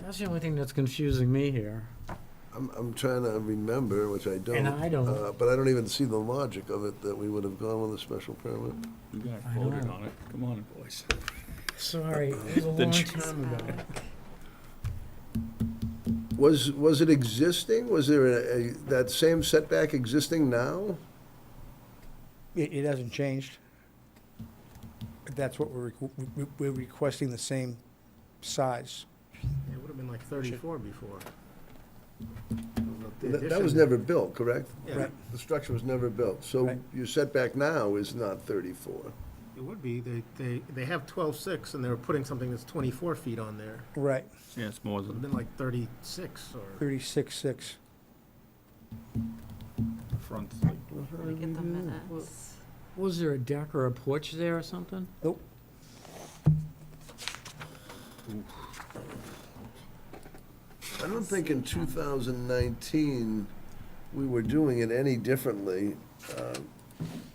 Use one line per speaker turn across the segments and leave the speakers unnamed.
That's the only thing that's confusing me here.
I'm, I'm trying to remember, which I don't.
I don't.
uh, But I don't even see the logic of it, that we would have gone with a special permit.
You guys
I
voted
know.
on it. Come on, boys.
Sorry, it was a
The
long
trees.
time ago.
Was, was it existing? Was there a, a- that same setback existing now?
It, it hasn't changed. That's what we're, requ- we- we- we're requesting the same size.
It would have been like 34 before. The
That that was
addition-
never built, correct?
Yeah,
Right.
The structure was never built, so
Right.
your setback now is not 34.
It would be, they, they, they have 12.6 and they were putting something that's 24 feet on there.
Right,
Yeah, it's more
It would have
than,
been like 36 or,
thirty-six, six.
the front's like,
Let me get the minutes.
Was there a deck or a porch there or something?
Nope,
I don't think in 2019, we were doing it any differently. Uh,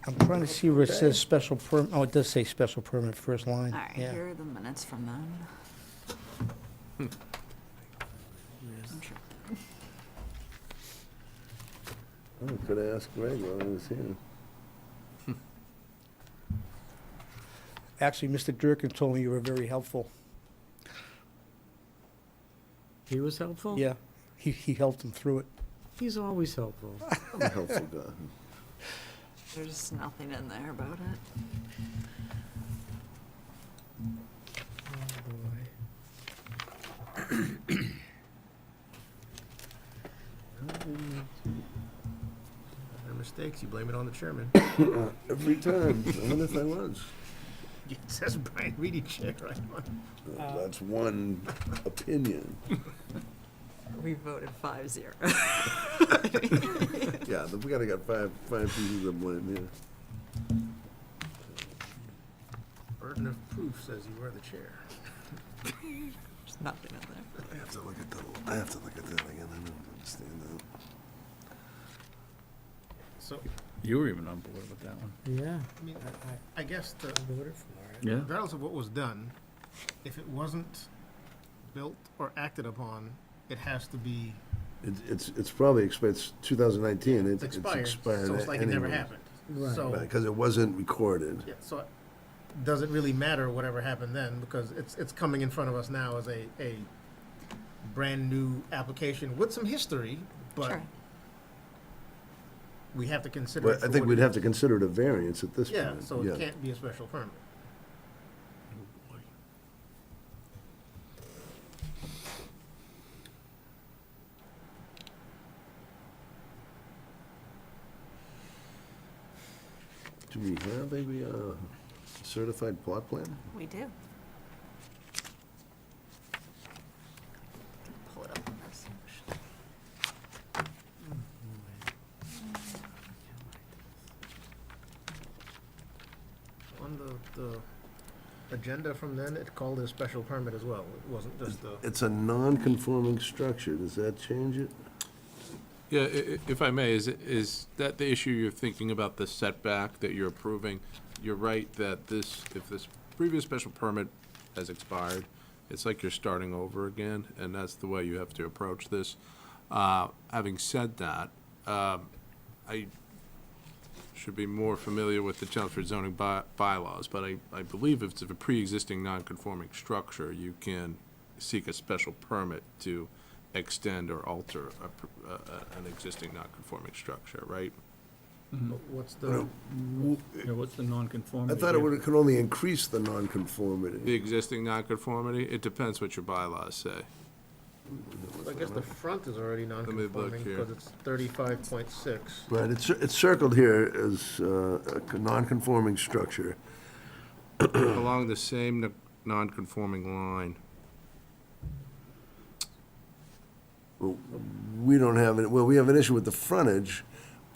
I'm trying to see where it says special perm, oh, it does say special permit, first line,
All right,
yeah.
here are the minutes from them. I'm sure.
I could have Oh, asked Greg while he was here.
Actually, Mr. Durkin told me you were very helpful,
He was
Oh.
helpful?
yeah. He, he helped him through it.
He's always helpful.
I'm a helpful guy.
There's nothing in there about it.
Oh,
their mistakes, you blame it on the chairman.
Every time, I wonder if I was.
It says Brian Reedy chair right on. Uh,
That's one opinion.
We voted five zero.
Yeah, we gotta got five, five pieces of blame here.
Burden of proof says you were the chair.
There's nothing in there.
I have to look at the, I have to look at that again, I don't understand that.
So,
you were even on board with that one.
Yeah,
I mean, I- I- I guess the,
I voted for it.
Yeah.
regardless of what was done, if it wasn't built or acted upon, it has to be
It's, it's, it's probably expired, it's 2019, it's
it's
it's
expired.
expired
So it's like it never
anyway.
happened.
Right.
So.
Because it wasn't recorded.
Yeah, so it doesn't really matter whatever happened then, because it's, it's coming in front of us now as a, a brand-new application with some history, but
Sure.
we have to consider it
But I
for
think
what
we'd
it
have to
is.
consider it a variance at this point.
Yeah, so it can't be a special permit.
Do we have a uh, certified plot plan?
We do. Pull it up on our section.
On the, the agenda from then, it called it a special permit as well. It wasn't just a,
It's a non-conforming structure, does that change it?
Yeah, i- i- if I may, is, is that the issue you're thinking about, the setback that you're approving? You're right that this, if this previous special permit has expired, it's like you're starting over again, and that's the way you have to approach this. Uh, Having said that, um, I should be more familiar with the Chelmsford zoning by- bylaws, but I, I believe if it's a pre-existing non-conforming structure, you can seek a special permit to extend or alter a pr- a- a- an existing non-conforming structure, right?
what's the,
Yeah, what's the
I
non-conformity?
thought it
here?
would, it could only increase the
The
non-conformity.
existing non-conformity, it depends what your bylaws say.
I guess the front is already
look
non-conforming,
here.
because it's thirty-five point six.
Right, it's, it's circled here as uh, a c- non-conforming structure.
Along the same n- non-conforming line,
We don't have, it. well, we have an issue with the frontage,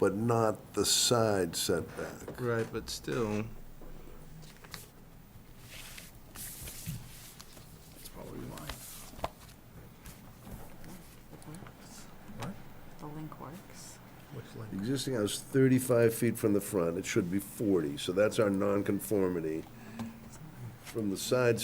but not the side setback.
right, but still,
It's probably mine.
What?
The link works.
Which
The
link?
Existing house 35 feet from the front, it should be 40, so that's our nonconformity. From the side